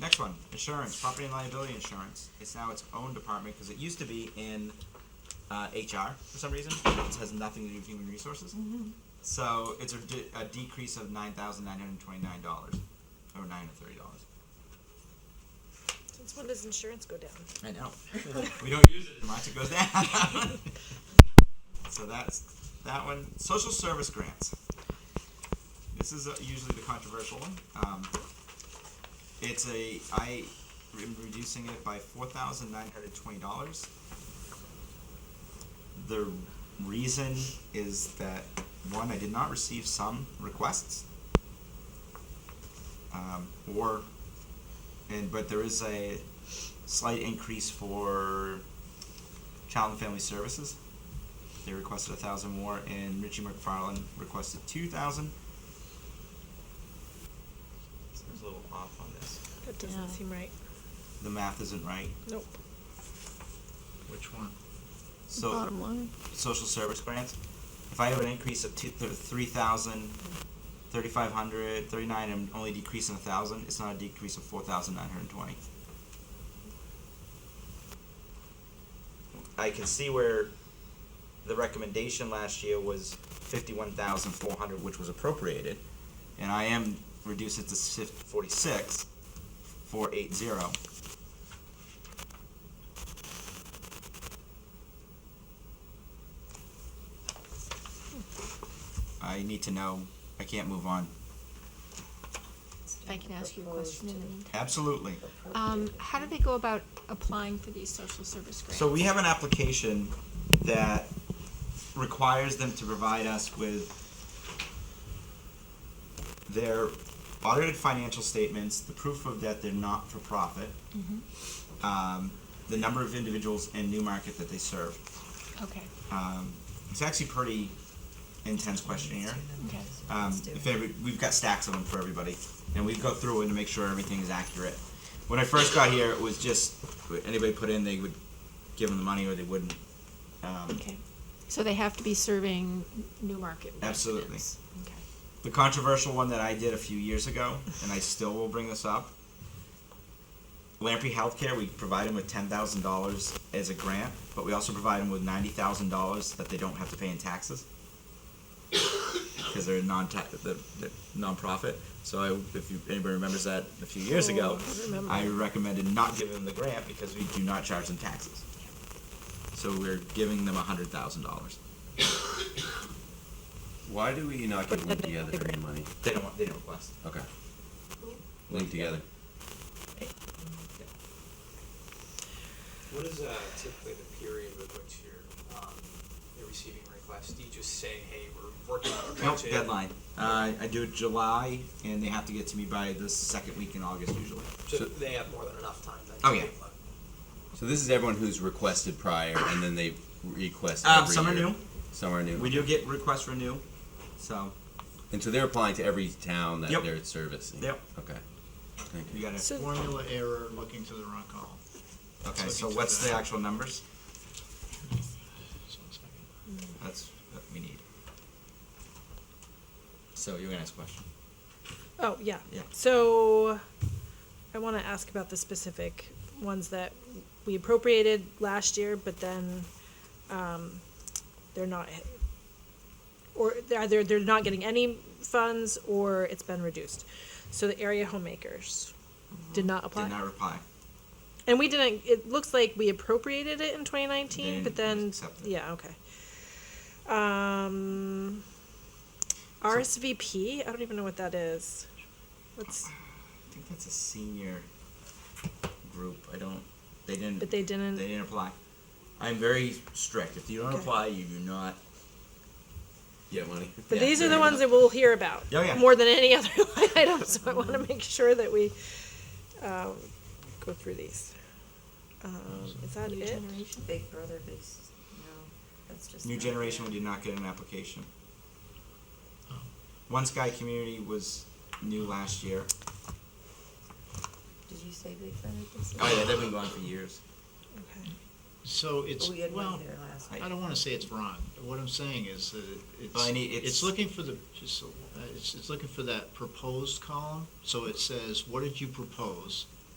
Next one, insurance, property and liability insurance. It's now its own department because it used to be in uh, HR for some reason. It has nothing to do with human resources. So it's a, de- a decrease of nine thousand nine hundred twenty-nine dollars, or nine hundred thirty dollars. Since when does insurance go down? I know. we don't use it as much. It goes down. so that's that one. Social service grants. This is uh, usually the controversial one. Um, it's a I am reducing it by four thousand nine hundred twenty dollars. The reason is that one, I did not receive some requests, um, or and but there is a slight increase for child and family services. They requested a thousand more, and Richie McFarland requested two thousand. Seems a little off on this. That doesn't Yeah. seem right. The math isn't right. Nope. Which one? So Bottom line. social service grants. If I have an increase of two, th- 3,000, 3,500, 39, I'm only decreasing 1,000. It's not a decrease of 4,920. I can see where the recommendation last year was 51,400, which was appropriated, and I am reduced it to sif- 46, 480. I need to know. I can't move on. If I can ask you a question in the meantime. Absolutely. Um, how do they go about applying for these social service grants? So we have an application that requires them to provide us with their audited financial statements, the proof of that they're not for profit, Mm-hmm. um, the number of individuals in new market that they serve. Okay, Um, it's actually pretty intense questionnaire. okay. Um, if every, we've got stacks of them for everybody, and we go through and to make sure everything is accurate. When I first got here, it was just anybody put in, they would give them the money or they wouldn't. Um, Okay. So they have to be serving New Market Absolutely. residents? Okay. the controversial one that I did a few years ago, and I still will bring this up. Lamprey Healthcare, we provide them with ten thousand dollars as a grant, but we also provide them with ninety thousand dollars that they don't have to pay in taxes because they're a non the, the nonprofit. So I, if you, anybody remembers that a few years ago, Oh, I remember. I recommended not giving them the grant because we do not charge them taxes. So we're giving them hundred thousand dollars. Why do we not get linked together for any money? They don't want. They don't request. Okay. Linked together. What is uh, typically the period with which you're, um, you're receiving requests? Do you just say, hey, we're working on a Nope, budget? deadline. Uh, I do it July, and they have to get to me by the second week in August usually. So So- they have more than enough time then? Oh, to yeah. do one. So this is everyone who's requested prior, and then they request Um, every some are year. new. Some are new. We do get requests for new, so And so they're applying to every town that Yep. they're servicing. Yep. Okay. Thank you you. got it. So- Formula error, looking to the wrong column. Okay, looking so to what's the- the actual numbers? Just one second. That's what we need. So you're gonna ask a question. Oh, yeah. Yeah. So I want to ask about the specific ones that we appropriated last year, but then um, they're not, or they're either they're not getting any funds or it's been reduced. So the area homemakers did not apply. Mm-hmm. Did not reply. And we didn't. It looks like we appropriated it in 2019, They but didn't then accept it. yeah, okay. Um, RSVP. I don't even know what that is. What's? I think that's a senior group. I don't. They didn't. But they They didn't. didn't apply. I'm very strict. If you don't Okay. apply, you do not. Get money. but yeah, these are there the you ones go. that we'll hear about Oh, yeah. more than any other line item. So I want to make sure that we um, go through these. Um, is that New it? generation? Big Brother, big, s- no, that's just. New not generation, fair. we did not get an application. Oh. One Sky Community was new last year. Did you say Big Brother, big sister? Oh yeah, they've been going for years. Okay. So it's, Oh, We had well, one there last. I- I don't wanna say it's wrong. What I'm saying is that it- it's, Well, I need- it's- it's looking for the, just, a- uh, it's, it's looking for that proposed column. So it says, what did you propose?